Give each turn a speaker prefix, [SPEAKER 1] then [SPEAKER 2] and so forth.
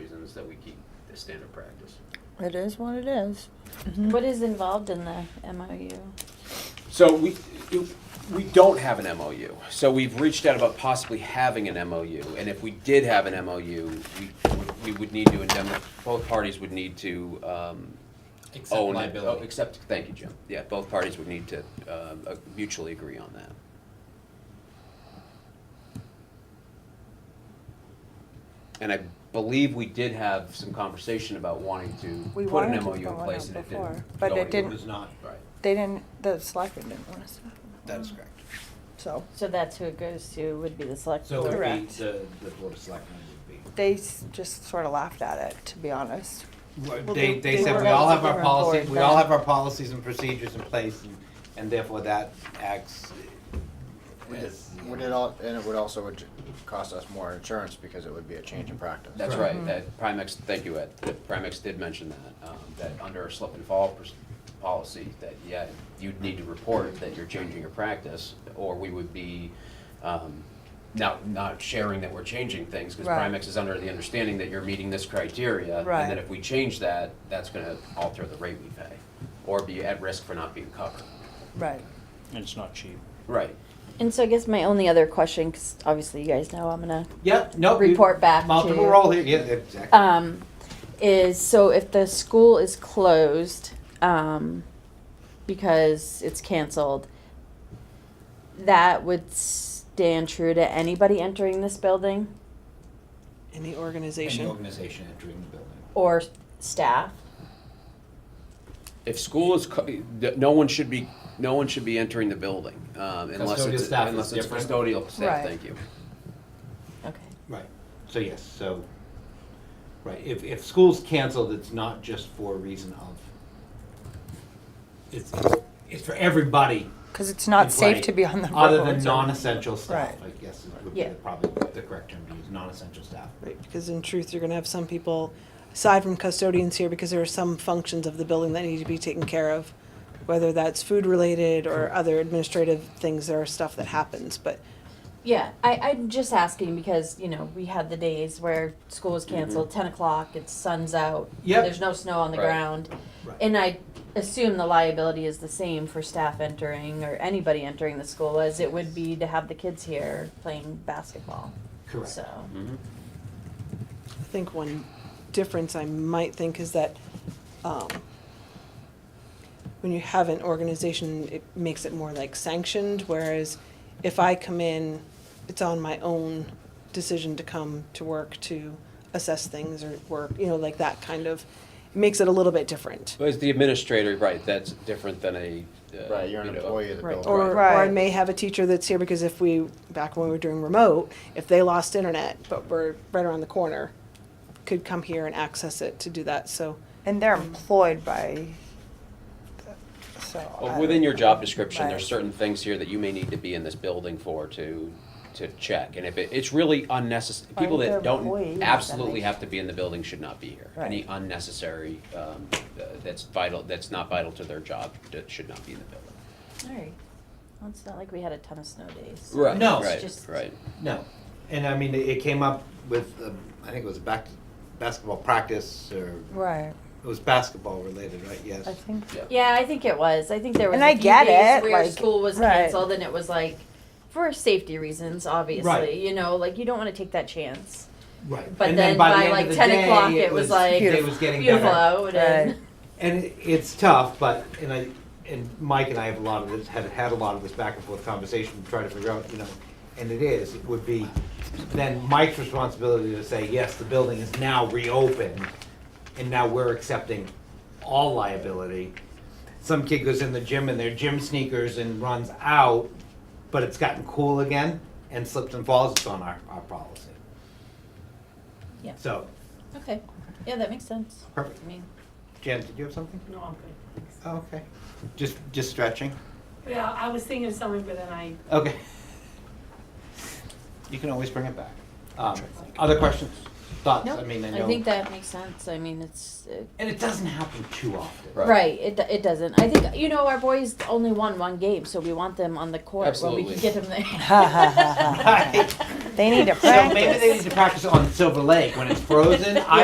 [SPEAKER 1] is that we keep the standard practice.
[SPEAKER 2] It is what it is.
[SPEAKER 3] What is involved in the MOU?
[SPEAKER 1] So we, it- we don't have an MOU. So we've reached out about possibly having an MOU. And if we did have an MOU, we, we would need to indemnify, both parties would need to um,
[SPEAKER 4] Except
[SPEAKER 1] own it.
[SPEAKER 4] liability.
[SPEAKER 1] Oh, Except, thank you, Jim. Yeah, both parties would need to um, uh, mutually agree on that. And I believe we did have some conversation about wanting
[SPEAKER 2] We
[SPEAKER 1] to put
[SPEAKER 2] wanted
[SPEAKER 1] an
[SPEAKER 2] to
[SPEAKER 1] MOU in
[SPEAKER 2] go on
[SPEAKER 1] place
[SPEAKER 2] it
[SPEAKER 1] and it
[SPEAKER 2] before,
[SPEAKER 1] didn't.
[SPEAKER 2] but
[SPEAKER 1] go
[SPEAKER 2] it
[SPEAKER 1] anywhere.
[SPEAKER 2] didn't.
[SPEAKER 5] It's not,
[SPEAKER 1] Right.
[SPEAKER 2] They didn't, the selectmen didn't want us to.
[SPEAKER 5] that
[SPEAKER 2] Mm-hmm.
[SPEAKER 5] is correct.
[SPEAKER 2] So
[SPEAKER 3] So that's who it goes to, would be the select
[SPEAKER 4] So it would
[SPEAKER 3] board.
[SPEAKER 4] be,
[SPEAKER 2] Correct.
[SPEAKER 4] the, the board of selectmen would be.
[SPEAKER 2] they s- just sort of laughed at it, to be honest.
[SPEAKER 4] Well,
[SPEAKER 2] Well,
[SPEAKER 4] They,
[SPEAKER 2] they-
[SPEAKER 4] they
[SPEAKER 2] they
[SPEAKER 4] said
[SPEAKER 2] were
[SPEAKER 4] we all
[SPEAKER 2] relatively
[SPEAKER 4] have our
[SPEAKER 2] on
[SPEAKER 4] policies,
[SPEAKER 2] board
[SPEAKER 4] we all
[SPEAKER 2] then.
[SPEAKER 4] have our policies and procedures in place, and, and therefore that acts uh, as.
[SPEAKER 6] Would it all, and it would also would cost us more insurance because it would be a change in practice.
[SPEAKER 1] That's right, that Primex, thank you, Ed, that Primex did mention that, um, that under a slip and fall pers- policy, that, yeah, you'd need to report that you're changing your practice, or we would be, um, not, not sharing that we're changing things, because
[SPEAKER 2] Right.
[SPEAKER 1] Primex is under the understanding that you're meeting this criteria, and
[SPEAKER 2] Right.
[SPEAKER 1] then if we change that, that's gonna alter the rate we pay, or be at risk for not being covered.
[SPEAKER 2] Right.
[SPEAKER 7] And it's not cheap.
[SPEAKER 1] Right.
[SPEAKER 3] And so I guess my only other question, because obviously you guys know I'm gonna,
[SPEAKER 4] Yep, no. we-
[SPEAKER 3] Report back
[SPEAKER 4] Multiple
[SPEAKER 3] to-
[SPEAKER 4] role here, yeah, exactly.
[SPEAKER 3] um, is so if the school is closed, um, because it's canceled, that would stand true to anybody entering this building
[SPEAKER 4] And
[SPEAKER 8] Any
[SPEAKER 4] the
[SPEAKER 8] organization.
[SPEAKER 4] organization entering the building.
[SPEAKER 3] or staff?
[SPEAKER 1] If school is, co- th- no one should be, no one should be entering the building, um, unless
[SPEAKER 4] Custodial
[SPEAKER 1] it's,
[SPEAKER 4] staff is
[SPEAKER 1] unless it's
[SPEAKER 4] different.
[SPEAKER 1] custodial staff,
[SPEAKER 2] Right.
[SPEAKER 1] thank you.
[SPEAKER 3] Okay.
[SPEAKER 4] Right, so yes, so, right, if, if school's canceled, it's not just for a reason of, it's, it's for everybody.
[SPEAKER 2] Because it's not safe
[SPEAKER 4] Right.
[SPEAKER 2] to be on the road.
[SPEAKER 4] Other than non-essential staff, I
[SPEAKER 2] Right.
[SPEAKER 4] guess is- would be
[SPEAKER 3] Yeah.
[SPEAKER 4] the- probably the correct term to use, non-essential staff.
[SPEAKER 8] Right, because in truth, you're gonna have some people, aside from custodians here, because there are some functions of the building that need to be taken care of. Whether that's food related or other administrative things, there are stuff that happens, but
[SPEAKER 3] Yeah, I, I'm just asking because, you know, we had the days where school was canceled, ten o'clock, it's sun's out,
[SPEAKER 4] Mm-hmm. Yep.
[SPEAKER 3] there's no snow on the
[SPEAKER 1] Right.
[SPEAKER 3] ground.
[SPEAKER 4] Right.
[SPEAKER 3] And I assume the liability is the same for staff entering or anybody entering the school as it would be to have the kids here playing basketball.
[SPEAKER 4] Correct.
[SPEAKER 3] So,
[SPEAKER 8] I think one difference I might think is that um, when you have an organization, it makes it more like sanctioned, whereas if I come in, it's on my own decision to come to work to assess things or work, you know, like that kind of, it makes it a little bit different.
[SPEAKER 1] Well, As the administrator, right, that's different than a. uh,
[SPEAKER 6] Right, you're an
[SPEAKER 1] you know,
[SPEAKER 6] employee of the
[SPEAKER 8] Right,
[SPEAKER 6] building.
[SPEAKER 8] or, or I
[SPEAKER 2] Right.
[SPEAKER 8] may have a teacher that's here because if we, back when we were doing remote, if they lost internet, but we're right around the corner, could come here and access it to do that, so.
[SPEAKER 2] And they're employed by, so. I
[SPEAKER 1] Well, Within your
[SPEAKER 2] don't
[SPEAKER 1] job
[SPEAKER 2] know.
[SPEAKER 1] description, there's
[SPEAKER 2] Right.
[SPEAKER 1] certain things here that you may need to be in this building for to, to check. And if it, it's really unnecessary, people
[SPEAKER 2] Aren't there
[SPEAKER 1] that
[SPEAKER 2] employees
[SPEAKER 1] don't
[SPEAKER 2] that
[SPEAKER 1] absolutely
[SPEAKER 2] they-
[SPEAKER 1] have to be in the building should not be here. Any unnecessary, um, uh, that's vital, that's not vital to their job, that should not be in the building.
[SPEAKER 3] alright, well, it's not like we had a ton of snow days.
[SPEAKER 1] Right,
[SPEAKER 4] No.
[SPEAKER 3] It's
[SPEAKER 1] right,
[SPEAKER 3] just-
[SPEAKER 1] right.
[SPEAKER 4] No, and I mean, it- it came up with, um, I think it was back, basketball practice, or,
[SPEAKER 2] Right,
[SPEAKER 4] it was basketball related, right, yes?
[SPEAKER 2] I think,
[SPEAKER 3] Yeah, I think it was. I think there was
[SPEAKER 2] And
[SPEAKER 3] a
[SPEAKER 2] I
[SPEAKER 3] few
[SPEAKER 2] get
[SPEAKER 3] days
[SPEAKER 2] it,
[SPEAKER 3] where
[SPEAKER 2] like,
[SPEAKER 3] school was
[SPEAKER 2] right.
[SPEAKER 3] canceled and it was like for safety reasons, obviously.
[SPEAKER 4] Right.
[SPEAKER 3] You know, like you don't want to take that chance.
[SPEAKER 4] Right.
[SPEAKER 3] But
[SPEAKER 4] And
[SPEAKER 3] then
[SPEAKER 4] by the
[SPEAKER 3] by
[SPEAKER 4] end of
[SPEAKER 3] like
[SPEAKER 4] the
[SPEAKER 3] 10
[SPEAKER 4] day,
[SPEAKER 3] o'clock, it was like,
[SPEAKER 4] It was getting
[SPEAKER 3] Beautiful
[SPEAKER 4] better.
[SPEAKER 3] out and
[SPEAKER 2] Right.
[SPEAKER 4] And it- it's tough, but, and I, and Mike and I have a lot of this, have had a lot of this back and forth conversation, trying to figure out, you know, and it is, it would be then Mike's responsibility to say, yes, the building is now reopened, and now we're accepting all liability. Some kid goes in the gym in their gym sneakers and runs out, but it's gotten cool again, and slips and falls, it's on our, our policy.
[SPEAKER 3] Yeah.
[SPEAKER 4] So,
[SPEAKER 3] okay, yeah, that makes sense.
[SPEAKER 4] perfect.
[SPEAKER 3] I mean,
[SPEAKER 4] Jen, did you have something?
[SPEAKER 9] No, I'm good, thanks.
[SPEAKER 4] Oh, okay. Just, just stretching?
[SPEAKER 9] Yeah, I was thinking of something, but then I
[SPEAKER 4] Okay. You can always bring it back. Um, other questions, thoughts? I mean, I know.
[SPEAKER 3] I think that makes sense. I mean, it's it,
[SPEAKER 4] And it doesn't happen too often.
[SPEAKER 1] Right.
[SPEAKER 3] right. It do- it doesn't. I think you know our boys only won one game, so we want them on the court where we
[SPEAKER 1] Absolutely.
[SPEAKER 3] can get them there.
[SPEAKER 2] They need to
[SPEAKER 4] So maybe
[SPEAKER 2] practice.
[SPEAKER 4] they need to practice on Silver Lake when it's frozen. I